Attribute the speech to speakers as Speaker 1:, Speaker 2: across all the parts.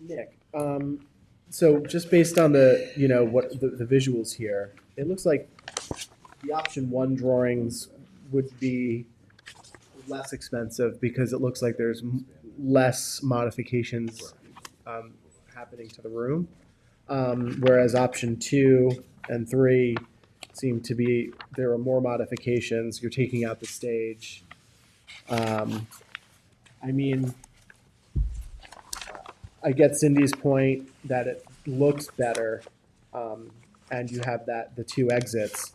Speaker 1: Nick, um, so just based on the, you know, what, the, the visuals here, it looks like the option one drawings would be less expensive because it looks like there's m- less modifications, um, happening to the room. Um, whereas option two and three seem to be, there are more modifications, you're taking out the stage. Um, I mean, I get Cindy's point that it looks better, um, and you have that, the two exits.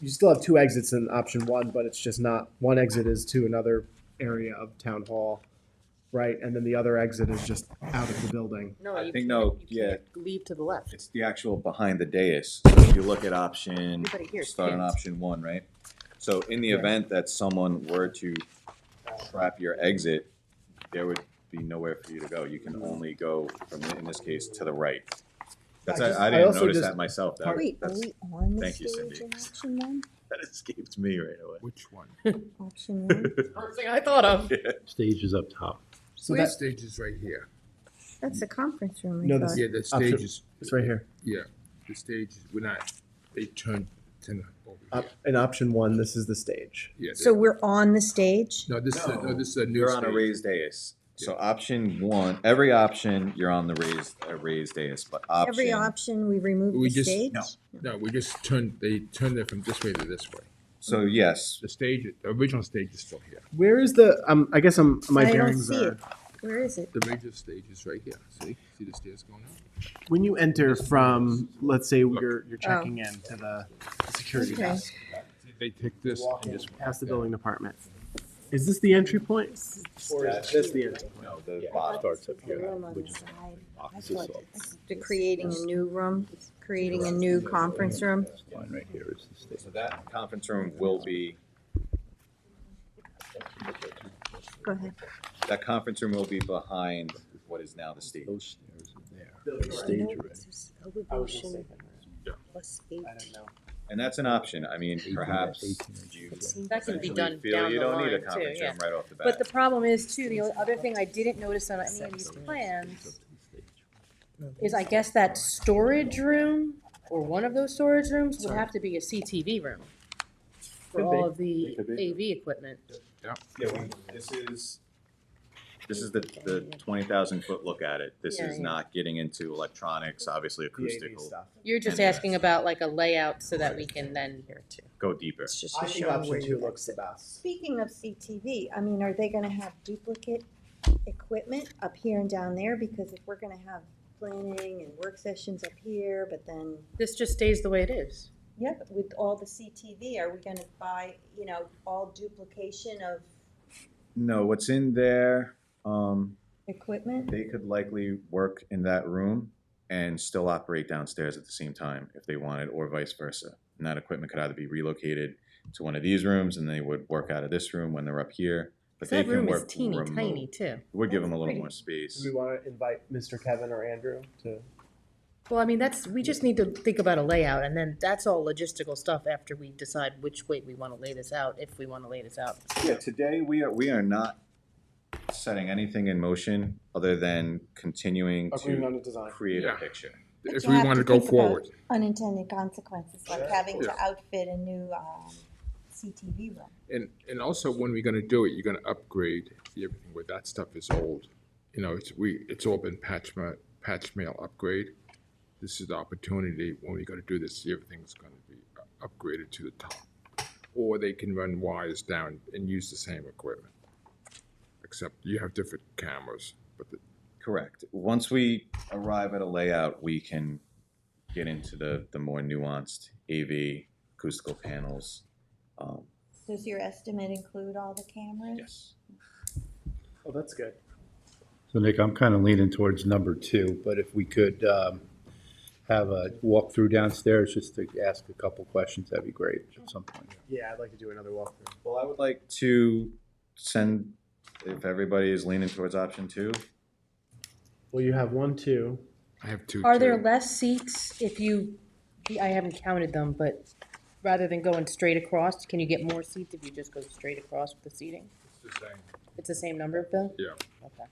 Speaker 1: You still have two exits in option one, but it's just not, one exit is to another area of town hall, right? And then the other exit is just out of the building.
Speaker 2: No,
Speaker 3: I
Speaker 2: you can't-
Speaker 3: think no,
Speaker 2: you
Speaker 3: yeah.
Speaker 2: can't Leave to the left.
Speaker 3: It's the actual behind the dais. So if you look at option,
Speaker 2: Everybody here is
Speaker 3: start on
Speaker 2: kids.
Speaker 3: option one, right? So in the
Speaker 1: Correct.
Speaker 3: event that someone were to trap your exit, there would be nowhere for you to go. You can only go from, in this case, to the right. That's,
Speaker 1: I just-
Speaker 3: I I
Speaker 1: I
Speaker 3: didn't
Speaker 1: also
Speaker 3: notice
Speaker 1: just-
Speaker 3: that myself. That,
Speaker 4: Wait, are
Speaker 3: that's-
Speaker 4: we on the
Speaker 3: thank you,
Speaker 4: stage
Speaker 3: Cindy.
Speaker 4: in option one?
Speaker 3: that escaped me right away.
Speaker 5: Which one?
Speaker 4: Option one?
Speaker 2: First thing I thought of.
Speaker 6: Stage is up top.
Speaker 1: So
Speaker 5: The
Speaker 1: that,
Speaker 5: stage is right here.
Speaker 4: That's the conference room,
Speaker 1: No,
Speaker 4: I
Speaker 1: this-
Speaker 4: thought.
Speaker 5: Yeah, the
Speaker 1: Option-
Speaker 5: stage is,
Speaker 1: it's right here.
Speaker 5: yeah, the stage is, we're not, they turned to not over
Speaker 1: Up, in option one, this is the stage.
Speaker 5: here. Yeah,
Speaker 4: So
Speaker 5: they-
Speaker 4: we're on the stage?
Speaker 5: No, this is, a- no, this is a new
Speaker 3: You're on a
Speaker 5: stage.
Speaker 3: raised dais. So option one, every option, you're on the raised, a raised dais, but option.
Speaker 4: Every option, we remove
Speaker 5: We
Speaker 4: the
Speaker 5: just-
Speaker 4: stage?
Speaker 3: no.
Speaker 5: No, we just turned, they turned it from this way to this way.
Speaker 3: So yes,
Speaker 5: The stage, the original stage is still here.
Speaker 1: Where is the, um, I guess I'm, my
Speaker 4: I don't
Speaker 1: bearings
Speaker 4: see
Speaker 1: are.
Speaker 4: it. Where is it?
Speaker 5: The original stage is right here. See, see the stairs going up?
Speaker 1: When you enter from, let's say you're, you're checking in to the security
Speaker 4: Okay.
Speaker 1: desk.
Speaker 5: They take this
Speaker 1: walk
Speaker 5: and
Speaker 1: in
Speaker 5: this one.
Speaker 1: past the building department. Is this the entry point? Or is this the entry point?
Speaker 3: no, the bottom.
Speaker 6: Starts up
Speaker 4: The
Speaker 6: here,
Speaker 4: room on
Speaker 6: which
Speaker 4: the
Speaker 6: is
Speaker 4: side.
Speaker 6: offices
Speaker 4: thought
Speaker 6: up.
Speaker 4: They're creating a new room, creating a new conference room.
Speaker 6: Line right here is the stage.
Speaker 3: So that conference room will be,
Speaker 4: Go ahead.
Speaker 3: that conference room will be behind what is now the stage.
Speaker 6: Those stairs are there. The Stage already.
Speaker 1: mistaken.
Speaker 4: plus eight.
Speaker 1: I don't know.
Speaker 3: And that's an option. I mean, perhaps you
Speaker 2: That can be
Speaker 3: potentially
Speaker 2: done
Speaker 3: feel
Speaker 2: down
Speaker 3: you
Speaker 2: the
Speaker 3: don't need a
Speaker 2: line too,
Speaker 3: conference
Speaker 2: yeah.
Speaker 3: room right off the bat.
Speaker 7: But the problem is too, the other thing I didn't notice on any of these plans is I guess that storage room or one of those storage rooms would have to be a CTV room for
Speaker 1: Could
Speaker 7: all of the
Speaker 3: It could be.
Speaker 7: AV equipment.
Speaker 3: Yeah, we- this is, this is the, the twenty thousand foot look at it. This
Speaker 7: Yeah,
Speaker 3: is
Speaker 7: yeah.
Speaker 3: not getting into electronics, obviously
Speaker 1: PAV
Speaker 3: acoustical,
Speaker 1: stuff.
Speaker 7: You're just
Speaker 3: And, uh,
Speaker 7: asking about like a layout so that we can then.
Speaker 3: go deeper.
Speaker 4: It's just
Speaker 1: I
Speaker 4: a
Speaker 1: think
Speaker 4: show where
Speaker 1: option two
Speaker 4: you
Speaker 1: looks the
Speaker 4: exit.
Speaker 1: best.
Speaker 4: Speaking of CTV, I mean, are they gonna have duplicate equipment up here and down there? Because if we're gonna have planning and work sessions up here, but then,
Speaker 7: This just stays the way it is.
Speaker 4: yeah, but with all the CTV, are we gonna buy, you know, all duplication of
Speaker 3: No, what's in there, um,
Speaker 4: equipment?
Speaker 3: they could likely work in that room and still operate downstairs at the same time if they wanted, or vice versa. And that equipment could either be relocated to one of these rooms and they would work out of this room when they're up here. But they
Speaker 7: That
Speaker 3: can
Speaker 7: room is
Speaker 3: work
Speaker 7: teeny tiny
Speaker 3: remote.
Speaker 7: too.
Speaker 3: Would give them a little
Speaker 7: Pretty.
Speaker 3: more
Speaker 1: Do
Speaker 3: space.
Speaker 1: we want to invite Mr. Kevin or Andrew to?
Speaker 7: Well, I mean, that's, we just need to think about a layout and then that's all logistical stuff after we decide which way we wanna lay this out, if we wanna lay this out.
Speaker 3: Yeah, today we are, we are not setting anything in motion other than continuing
Speaker 1: Agreeing on
Speaker 3: to
Speaker 1: the design.
Speaker 3: create a
Speaker 5: Yeah.
Speaker 3: picture.
Speaker 4: But
Speaker 5: If
Speaker 4: you
Speaker 5: we
Speaker 4: have
Speaker 5: want to
Speaker 4: to
Speaker 5: go
Speaker 4: think about-
Speaker 5: forward,
Speaker 4: Unintended consequences, like having to outfit a new, um, CTV room.
Speaker 5: and, and also when we're gonna do it, you're gonna upgrade everything where that stuff is old. You know, it's, we, it's all been patch ma, patch mail upgrade. This is the opportunity, when we're gonna do this, everything's gonna be u- upgraded to the top. Or they can run wires down and use the same equipment. Except you have different cameras, but the,
Speaker 3: Correct. Once we arrive at a layout, we can get into the, the more nuanced AV acoustical panels. Um,
Speaker 4: Does your estimate include all the cameras?
Speaker 3: yes.
Speaker 1: Oh, that's good.
Speaker 6: So Nick, I'm kind of leaning towards number two, but if we could um, have a walkthrough downstairs just to ask a couple questions, that'd be great at some point.
Speaker 1: Yeah, I'd like to do another walkthrough.
Speaker 3: Well, I would like to send, if everybody is leaning towards option two,
Speaker 1: Well, you have one, two.
Speaker 5: I have two.
Speaker 7: Are there
Speaker 5: too.
Speaker 7: less seats if you, I haven't counted them, but rather than going straight across, can you get more seats if you just go straight across with the seating?
Speaker 5: It's the same.
Speaker 7: It's the same number, Bill?
Speaker 5: Yeah.
Speaker 7: Okay.